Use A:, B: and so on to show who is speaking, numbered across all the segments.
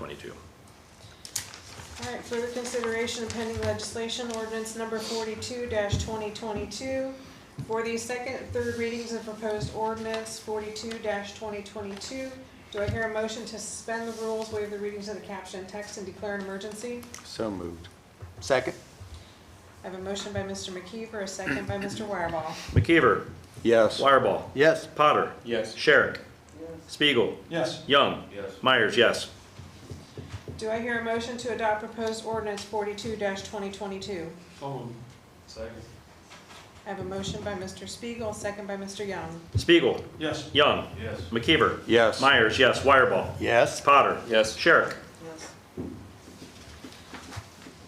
A: 2022.
B: All right, further consideration of pending legislation, ordinance number forty-two twenty twenty-two. For the second and third readings of proposed ordinance forty-two twenty twenty-two, do I hear a motion to suspend the rules, waive the readings of the caption and text, and declare an emergency?
C: So moved. Second?
B: I have a motion by Mr. McKeever, a second by Mr. Wireball.
A: McKeever.
C: Yes.
A: Wireball.
C: Yes.
A: Potter.
D: Yes.
A: Sherrick. Spiegel.
D: Yes.
A: Young.
D: Yes.
A: Myers, yes.
B: Do I hear a motion to adopt proposed ordinance forty-two twenty twenty-two?
D: So moved. Second.
B: I have a motion by Mr. Spiegel, a second by Mr. Young.
A: Spiegel.
D: Yes.
A: Young.
D: Yes.
A: McKeever.
C: Yes.
A: Myers, yes. Wireball.
C: Yes.
A: Potter.
D: Yes.
A: Sherrick.
B: Yes.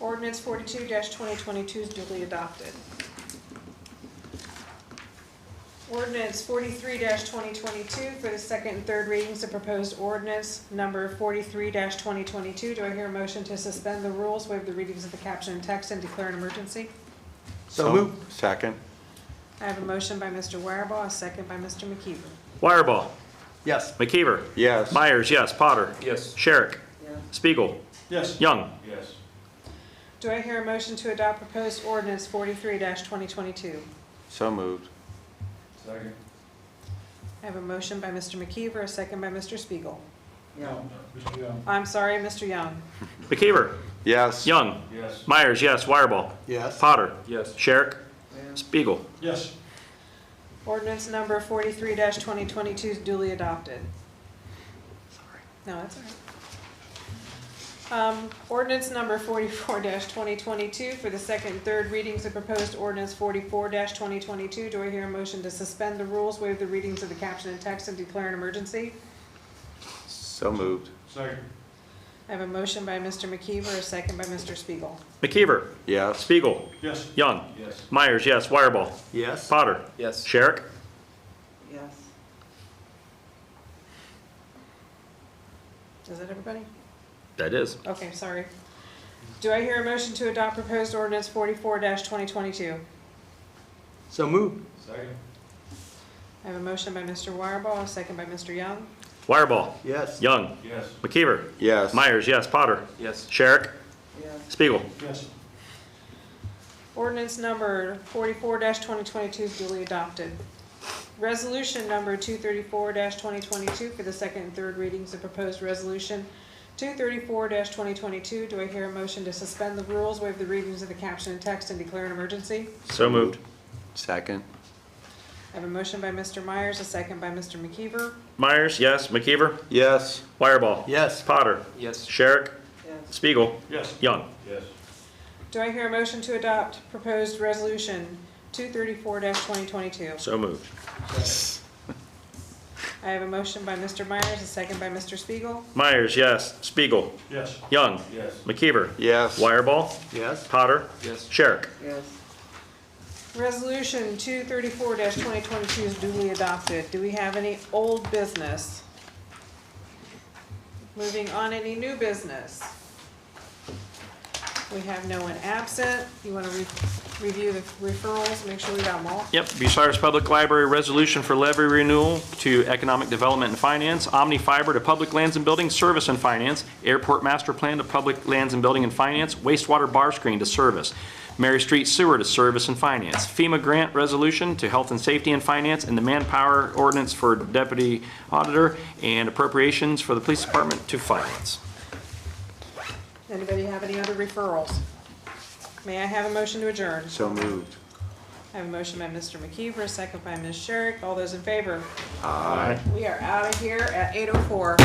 B: Ordinance forty-two twenty twenty-two is duly adopted. Ordinance forty-three twenty twenty-two for the second and third readings of proposed ordinance number forty-three twenty twenty-two. Do I hear a motion to suspend the rules, waive the readings of the caption and text, and declare an emergency?
C: So moved. Second?
B: I have a motion by Mr. Wireball, a second by Mr. McKeever.
A: Wireball.
C: Yes.
A: McKeever.
C: Yes.
A: Myers, yes. Potter.
D: Yes.
A: Sherrick. Spiegel.
D: Yes.
A: Young.
D: Yes.
B: Do I hear a motion to adopt proposed ordinance forty-three twenty twenty-two?
C: So moved.
D: Second.
B: I have a motion by Mr. McKeever, a second by Mr. Spiegel.
D: No. Mr. Young.
B: I'm sorry, Mr. Young.
A: McKeever.
C: Yes.
A: Young.
D: Yes.
A: Myers, yes. Wireball.
C: Yes.
A: Potter.
D: Yes.
A: Sherrick. Spiegel.
D: Yes.
B: Ordinance number forty-three twenty twenty-two is duly adopted. No, that's all right. Um, ordinance number forty-four twenty twenty-two for the second and third readings of proposed ordinance forty-four twenty twenty-two. Do I hear a motion to suspend the rules, waive the readings of the caption and text, and declare an emergency?
C: So moved.
D: Second.
B: I have a motion by Mr. McKeever, a second by Mr. Spiegel.
A: McKeever.
C: Yes.
A: Spiegel.
D: Yes.
A: Young.
D: Yes.
A: Myers, yes. Wireball.
C: Yes.
A: Potter.
D: Yes.
A: Sherrick.
B: Yes. Is that everybody?
A: That is.
B: Okay, sorry. Do I hear a motion to adopt proposed ordinance forty-four twenty twenty-two?
C: So moved.
D: Second.
B: I have a motion by Mr. Wireball, a second by Mr. Young.
A: Wireball.
C: Yes.
A: Young.
D: Yes.
A: McKeever.
C: Yes.
A: Myers, yes. Potter.
D: Yes.
A: Sherrick. Spiegel.
D: Yes.
B: Ordinance number forty-four twenty twenty-two is duly adopted. Resolution number two thirty-four twenty twenty-two for the second and third readings of proposed resolution two thirty-four twenty twenty-two. Do I hear a motion to suspend the rules, waive the readings of the caption and text, and declare an emergency?
A: So moved.
C: Second?
B: I have a motion by Mr. Myers, a second by Mr. McKeever.
A: Myers, yes. McKeever.
C: Yes.
A: Wireball.
C: Yes.
A: Potter.
D: Yes.
A: Sherrick. Spiegel.
D: Yes.
A: Young.
D: Yes.
B: Do I hear a motion to adopt proposed resolution two thirty-four twenty twenty-two?
A: So moved.
B: I have a motion by Mr. Myers, a second by Mr. Spiegel.
A: Myers, yes. Spiegel.
D: Yes.
A: Young.
D: Yes.
A: McKeever.
C: Yes.
A: Wireball.
C: Yes.
A: Potter.
D: Yes.
A: Sherrick.
B: Resolution two thirty-four twenty twenty-two is duly adopted. Do we have any old business? Moving on, any new business? We have no one absent. You wanna re- review the referrals, make sure we got them all?
A: Yep, Bucyrus Public Library Resolution for Levy Renewal to Economic Development and Finance, Omni Fiber to Public Lands and Building Service and Finance, Airport Master Plan to Public Lands and Building and Finance, wastewater bar screen to Service, Mary Street Sewer to Service and Finance, FEMA Grant Resolution to Health and Safety and Finance, and the Manpower Ordinance for Deputy Auditor, and appropriations for the Police Department to Finance.
B: Anybody have any other referrals? May I have a motion to adjourn?
C: So moved.
B: I have a motion by Mr. McKeever, a second by Ms. Sherrick. All those in favor? We are out of here at eight oh four.